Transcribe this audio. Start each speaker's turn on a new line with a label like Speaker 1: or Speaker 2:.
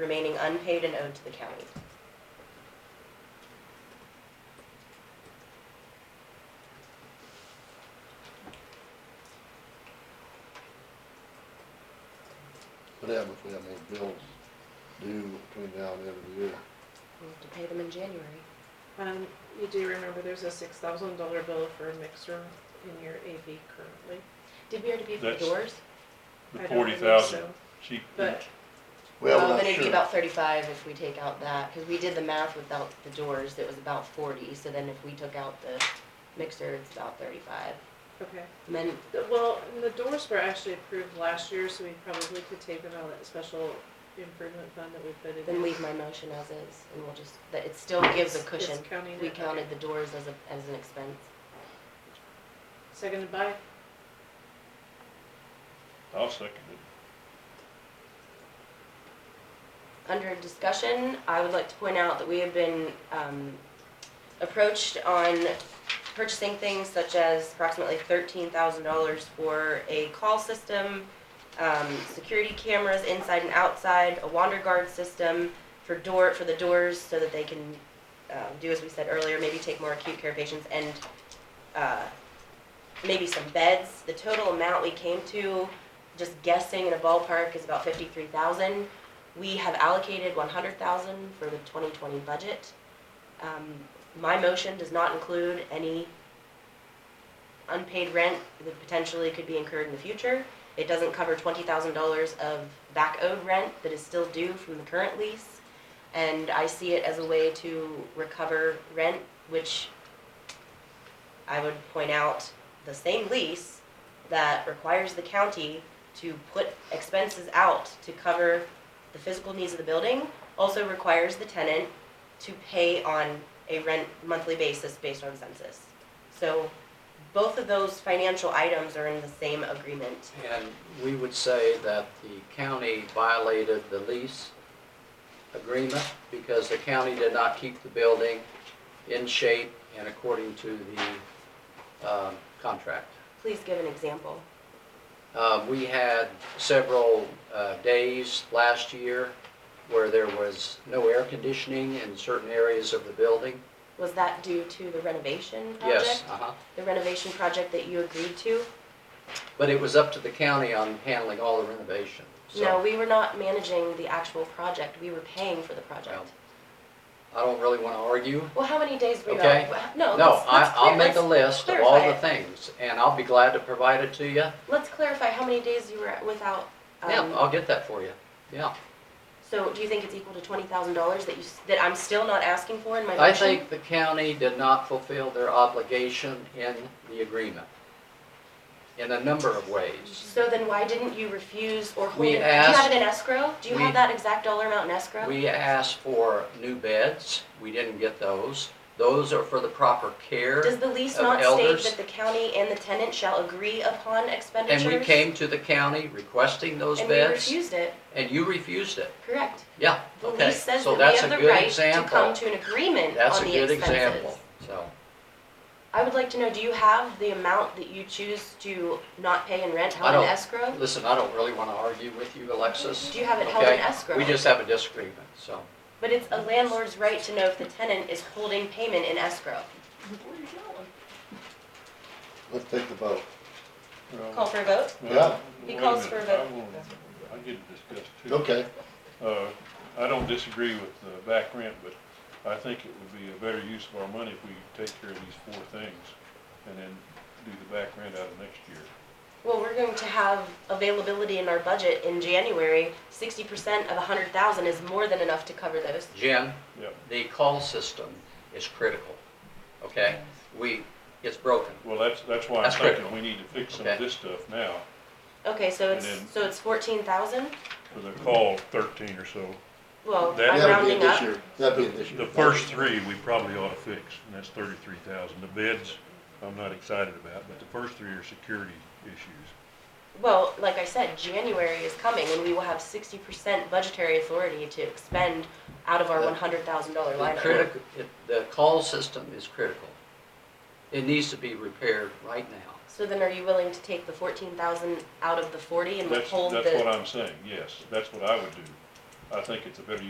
Speaker 1: remaining unpaid and owed to the county.
Speaker 2: What happens if we have more bills due between now and the end of the year?
Speaker 1: We'll have to pay them in January.
Speaker 3: Um, you do remember there's a six thousand dollar bill for a mixer in your AV currently?
Speaker 1: Did we already pay for the
Speaker 4: That's-
Speaker 1: doors?
Speaker 4: The
Speaker 3: I don't
Speaker 4: forty
Speaker 3: believe
Speaker 4: thousand,
Speaker 3: so,
Speaker 4: she,
Speaker 3: But
Speaker 2: Well,
Speaker 1: Oh,
Speaker 2: we're not
Speaker 1: Then it'd be
Speaker 2: sure.
Speaker 1: about thirty-five if we take out that, cause we did the math without the doors, it was about forty, so then if we took out the mixer, it's about thirty-five.
Speaker 3: Okay,
Speaker 1: And then,
Speaker 3: The- well, and the doors were actually approved last year, so we probably could take them out of that special improvement fund that we put in.
Speaker 1: then leave my motion as is, and we'll just, that it still gives a
Speaker 3: It's-
Speaker 1: cushion.
Speaker 3: it's counting
Speaker 1: We
Speaker 3: it, okay.
Speaker 1: counted the doors as a, as an expense.
Speaker 3: Seconded by,
Speaker 4: I'll second it.
Speaker 1: Under discussion, I would like to point out that we have been um, approached on purchasing things such as approximately thirteen thousand dollars for a call system, um, security cameras inside and outside, a wander guard system for door, for the doors so that they can uh, do as we said earlier, maybe take more acute care patients and uh, maybe some beds. The total amount we came to, just guessing in a ballpark, is about fifty-three thousand. We have allocated one hundred thousand for the twenty twenty budget. Um, my motion does not include any unpaid rent that potentially could be incurred in the future. It doesn't cover twenty thousand dollars of back owed rent that is still due from the current lease. And I see it as a way to recover rent, which I would point out, the same lease that requires the county to put expenses out to cover the physical needs of the building also requires the tenant to pay on a rent monthly basis based on census. So both of those financial items are in the same agreement.
Speaker 5: And we would say that the county violated the lease agreement because the county did not keep the building in shape and according to the um, contract.
Speaker 1: Please give an example.
Speaker 5: Uh, We had several uh, days last year where there was no air conditioning in certain areas of the building.
Speaker 1: Was that due to the renovation project?
Speaker 5: Yes, uh-huh.
Speaker 1: The renovation project that you agreed to?
Speaker 5: But it was up to the county on handling all the renovation. So
Speaker 1: No, we were not managing the actual project, we were paying for the project.
Speaker 5: Well, I don't really want to argue.
Speaker 1: Well, how many days were you
Speaker 5: Okay.
Speaker 1: out? No,
Speaker 5: No,
Speaker 1: let's,
Speaker 5: I,
Speaker 1: let's
Speaker 5: I'll
Speaker 1: clear,
Speaker 5: make a
Speaker 1: let's,
Speaker 5: list of all
Speaker 1: clarify
Speaker 5: the
Speaker 1: it.
Speaker 5: things, and I'll be glad to provide it to you.
Speaker 1: let's clarify how many days you were without, um,
Speaker 5: Yeah, I'll get that for you, yeah.
Speaker 1: So do you think it's equal to twenty thousand dollars that you, s- that I'm still not asking for in my
Speaker 5: I
Speaker 1: motion?
Speaker 5: think the county did not fulfill their obligation in the agreement, in a number of ways.
Speaker 1: So then why didn't you refuse or hold
Speaker 5: We
Speaker 1: it? Do you have
Speaker 5: asked-
Speaker 1: it in escrow? Do you
Speaker 5: we-
Speaker 1: have that exact dollar amount in escrow?
Speaker 5: We asked for new beds, we didn't get those. Those are for the proper
Speaker 1: Does
Speaker 5: care,
Speaker 1: the lease
Speaker 5: of
Speaker 1: not state
Speaker 5: elders-
Speaker 1: that the county and the tenant shall agree upon expenditures?
Speaker 5: and we came to the county requesting those
Speaker 1: And we
Speaker 5: beds,
Speaker 1: refused it,
Speaker 5: and you refused it.
Speaker 1: correct?
Speaker 5: Yeah,
Speaker 1: The
Speaker 5: okay,
Speaker 1: lease says that
Speaker 5: so
Speaker 1: we
Speaker 5: that's a
Speaker 1: have the
Speaker 5: good
Speaker 1: right to come
Speaker 5: example.
Speaker 1: to an agreement
Speaker 5: That's
Speaker 1: on
Speaker 5: a
Speaker 1: the
Speaker 5: good
Speaker 1: expenses.
Speaker 5: example, so.
Speaker 1: I would like to know, do you have the amount that you choose to not pay in rent
Speaker 5: I
Speaker 1: held in
Speaker 5: don't-
Speaker 1: escrow?
Speaker 5: Listen, I don't really want to argue with you, Alexis.
Speaker 1: Do you have it held in
Speaker 5: okay?
Speaker 1: escrow?
Speaker 5: We just have a disagreement, so.
Speaker 1: But it's a landlord's right to know if the tenant is holding payment in escrow.
Speaker 2: Let's take the vote.
Speaker 1: Call for a vote?
Speaker 2: Yeah.
Speaker 1: He
Speaker 4: Wait
Speaker 1: calls
Speaker 4: minute,
Speaker 1: for a
Speaker 4: I
Speaker 1: vote.
Speaker 4: wanna- I get to discuss too.
Speaker 2: Okay,
Speaker 4: Uh, I don't disagree with the back rent, but I think it would be a better use of our money if we take care of these four things and then do the back rent out of next year.
Speaker 1: Well, we're going to have availability in our budget in January. Sixty percent of a hundred thousand is more than enough to cover those.
Speaker 5: Jen,
Speaker 4: Yep.
Speaker 5: the call system is critical, okay? We, it's broken.
Speaker 4: Well, that's, that's why I'm
Speaker 5: That's
Speaker 4: thinking
Speaker 5: critical.
Speaker 4: we need to fix some of
Speaker 5: Okay.
Speaker 4: this stuff now
Speaker 1: Okay, so
Speaker 4: And
Speaker 1: it's,
Speaker 4: then-
Speaker 1: so it's fourteen thousand?
Speaker 4: for the call thirteen or so.
Speaker 1: Well,
Speaker 4: That-
Speaker 1: I'm
Speaker 2: that'd be an
Speaker 1: rounding up.
Speaker 2: issue, that'd be an issue.
Speaker 4: The first three we probably ought to fix, and that's thirty-three thousand. The beds, I'm not excited about, but the first three are security issues.
Speaker 1: Well, like I said, January is coming and we will have sixty percent budgetary authority to expend out of our
Speaker 5: The-
Speaker 1: one hundred thousand dollar
Speaker 5: The
Speaker 1: line item.
Speaker 5: critical, the call system is critical. It needs to be repaired right now.
Speaker 1: So then are you willing to take the fourteen thousand out of the forty and
Speaker 4: That's,
Speaker 1: withhold
Speaker 4: that's what
Speaker 1: the,
Speaker 4: I'm saying, yes, that's what I would do. I think it's a better